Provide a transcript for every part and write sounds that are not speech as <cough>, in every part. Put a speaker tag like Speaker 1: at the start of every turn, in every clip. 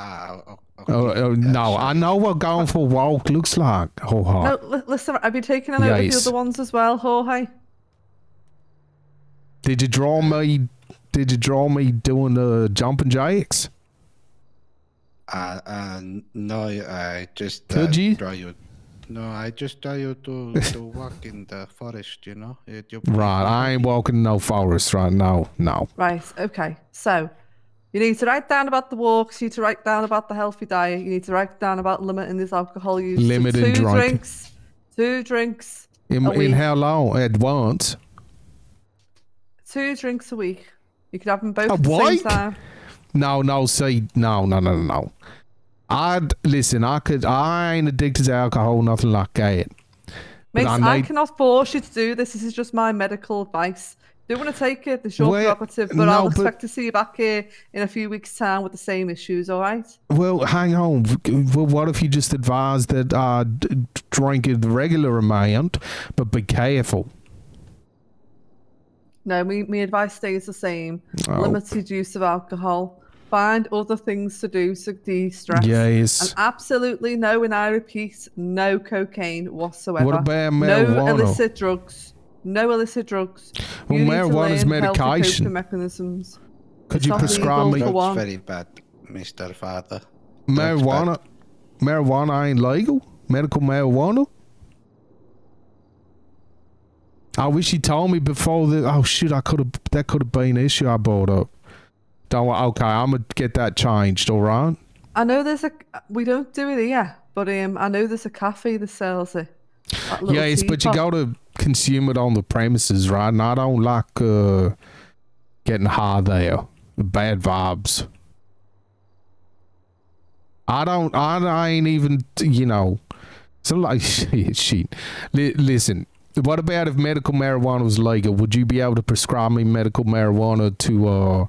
Speaker 1: Ah, o- o- okay.
Speaker 2: Oh, oh, no, I know what going for a walk looks like. Ho ha.
Speaker 3: No, li- listen, I've been taking a load of
Speaker 2: Yikes.
Speaker 3: the other ones as well, Jorge.
Speaker 2: Did you draw me? Did you draw me doing the jumping jacks?
Speaker 1: Uh, uh, no, I just uh,
Speaker 2: Could you?
Speaker 1: draw you. No, I just tell you
Speaker 2: <laughs>
Speaker 1: to, to walk in the forest, you know? It, you
Speaker 2: Right, I ain't walking no forest right now. No.
Speaker 3: Right, okay. So you need to write down about the walks, you need to write down about the healthy diet, you need to write down about limiting this alcohol use. to
Speaker 2: Limiting
Speaker 3: two
Speaker 2: drink.
Speaker 3: drinks. Two drinks.
Speaker 2: In,
Speaker 3: Are
Speaker 2: in
Speaker 3: we-
Speaker 2: how long? At once?
Speaker 3: Two drinks a week. You could have them both
Speaker 2: A
Speaker 3: at the same
Speaker 2: week?
Speaker 3: time.
Speaker 2: No, no, see, no, no, no, no, no. I'd listen. I could. I ain't addicted to alcohol, nothing like that.
Speaker 3: Mate,
Speaker 2: I
Speaker 3: I,
Speaker 2: might-
Speaker 3: cannot force you to do this. This is just my medical advice. Do you want to take it? It's your
Speaker 2: Well,
Speaker 3: prerogative, but
Speaker 2: no,
Speaker 3: I'll
Speaker 2: but-
Speaker 3: expect to see you back here in a few weeks' time with the same issues, all right?
Speaker 2: Well, hang on. Well, what if you just advise that I d- drink a regular amount, but be careful?
Speaker 3: No, me, my advice stays the same.
Speaker 2: Oh.
Speaker 3: Limited use of alcohol. Find other things to do to de-stress. And
Speaker 2: Yes.
Speaker 3: absolutely no, and I repeat, no cocaine whatsoever.
Speaker 2: What about
Speaker 3: No
Speaker 2: marijuana?
Speaker 3: illicit drugs. No illicit drugs.
Speaker 2: Well,
Speaker 3: You need to
Speaker 2: marijuana's
Speaker 3: learn healthy coping
Speaker 2: medication.
Speaker 3: mechanisms.
Speaker 2: Could you
Speaker 3: not
Speaker 2: prescribe me
Speaker 3: legal.
Speaker 1: That's
Speaker 3: Go on.
Speaker 1: very bad, Mr. Father.
Speaker 2: marijuana? Marijuana ain't legal. Medical marijuana. I wish you told me before that. Oh shoot! I could have. That could have been an issue I brought up. Don't. wor- Okay, I'm gonna get that changed. All right.
Speaker 3: I know there's a. We don't do it here, but um, I know there's a cafe that sells it. That little
Speaker 2: Yes, but you got
Speaker 3: teapot.
Speaker 2: to consume it on the premises, right? And I don't like uh, getting high there. Bad vibes. I don't. I, I ain't even. You know. So like <laughs> shit. shit. Li- listen. What about if medical marijuana was legal? Would you be able to prescribe me medical marijuana to uh,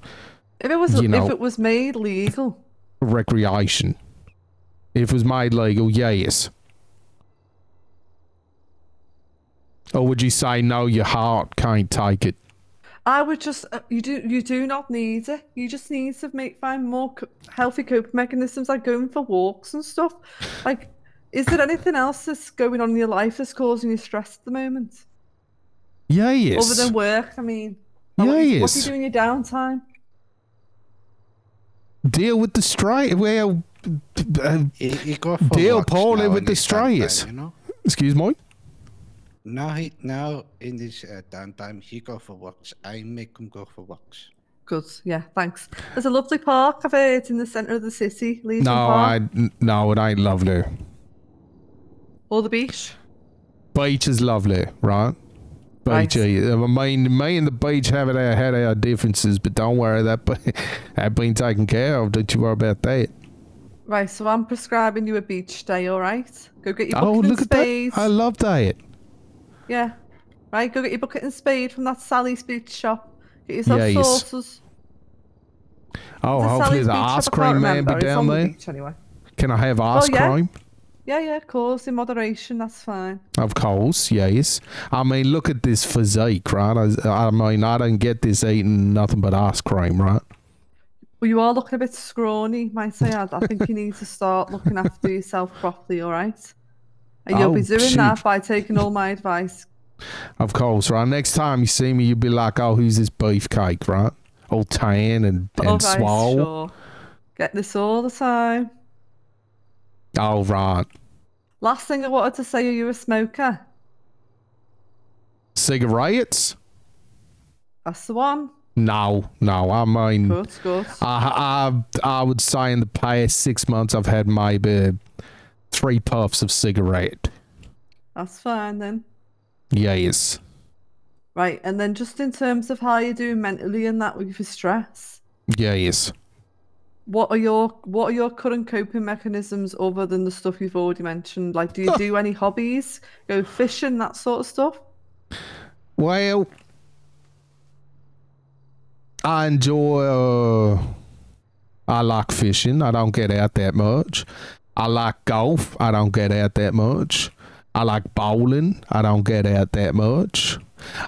Speaker 3: If it was,
Speaker 2: you know.
Speaker 3: if it was made legal,
Speaker 2: recreation? If it was made legal, yes. Or would you say no? Your heart can't take it.
Speaker 3: I would just. Uh, you do. You do not need it. You just need to make find more co- healthy coping mechanisms, like going for walks and stuff. Like, is there anything else that's going on in your life that's causing you stress at the moment,
Speaker 2: Yes.
Speaker 3: other than work? I mean, Like, what, do you- what do you
Speaker 2: Yes.
Speaker 3: do in your downtime?
Speaker 2: Deal with the strike. Well, uh,
Speaker 1: He, he go for
Speaker 2: Deal
Speaker 1: walks
Speaker 2: poorly
Speaker 1: now
Speaker 2: with
Speaker 1: in his
Speaker 2: destroyers.
Speaker 1: downtime, You know?
Speaker 2: excuse me.
Speaker 1: Now, he, now in this uh, downtime, he go for walks. I make him go for walks.
Speaker 3: Good. Yeah. Thanks. There's a lovely park. I've heard in the centre of the city, Legion
Speaker 2: No, I
Speaker 3: Park
Speaker 2: n- no, it ain't lovely.
Speaker 3: or the beach.
Speaker 2: Beach is lovely, right?
Speaker 3: Right.
Speaker 2: Beach. eh, I mean, me and the beach have it, had our differences, but don't worry, that <laughs> be- that been taken care of. Don't you worry about that.
Speaker 3: Right, so I'm prescribing you a beach day, all right? Go get your bucket
Speaker 2: Oh, look
Speaker 3: and
Speaker 2: at that!
Speaker 3: spade.
Speaker 2: I love that.
Speaker 3: Yeah. Right, go get your bucket and spade from that Sally's Beach shop. Get yourself
Speaker 2: Yes.
Speaker 3: sauces.
Speaker 2: Oh,
Speaker 3: Is it
Speaker 2: hopefully
Speaker 3: Sally's
Speaker 2: the
Speaker 3: Beach
Speaker 2: ice
Speaker 3: shop? I can't
Speaker 2: cream man
Speaker 3: remember.
Speaker 2: be
Speaker 3: It's
Speaker 2: down
Speaker 3: on the
Speaker 2: there.
Speaker 3: beach anyway.
Speaker 2: Can I have ice
Speaker 3: Oh, yeah.
Speaker 2: cream?
Speaker 3: Yeah, yeah, of course, in moderation, that's fine.
Speaker 2: Of course, yes. I mean, look at this physique, right? I, I mean, I don't get this eating nothing but ice cream, right?
Speaker 3: Well, you are looking a bit scrawny, might I add. I think you need to start looking after yourself properly, all right? And you'll be
Speaker 2: Oh,
Speaker 3: doing that
Speaker 2: shoot.
Speaker 3: by taking all my advice.
Speaker 2: Of course, right? Next time you see me, you'll be like, oh, who's this beefcake, right? All tan and,
Speaker 3: all
Speaker 2: and
Speaker 3: right,
Speaker 2: swole.
Speaker 3: sure. Get this all the time.
Speaker 2: Oh, right.
Speaker 3: Last thing I wanted to say, are you a smoker?
Speaker 2: Cigarettes?
Speaker 3: That's the one.
Speaker 2: No, no. I mean,
Speaker 3: Good, good.
Speaker 2: Uh, I, I, I would say in the past six months, I've had maybe three puffs of cigarette.
Speaker 3: That's fine then.
Speaker 2: Yes.
Speaker 3: Right, and then just in terms of how you're doing mentally and that with your stress,
Speaker 2: Yes.
Speaker 3: what are your what are your current coping mechanisms other than the stuff you've already mentioned? Like, do you do any hobbies? Go fishing, that sort of stuff?
Speaker 2: Well, I enjoy. Uh, I like fishing. I don't get out that much. I like golf. I don't get out that much. I like bowling. I don't get out that much.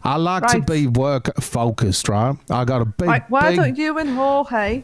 Speaker 2: I like
Speaker 3: Right.
Speaker 2: to be work focused, right? I got a big,
Speaker 3: Right, why
Speaker 2: big
Speaker 3: don't you and Jorge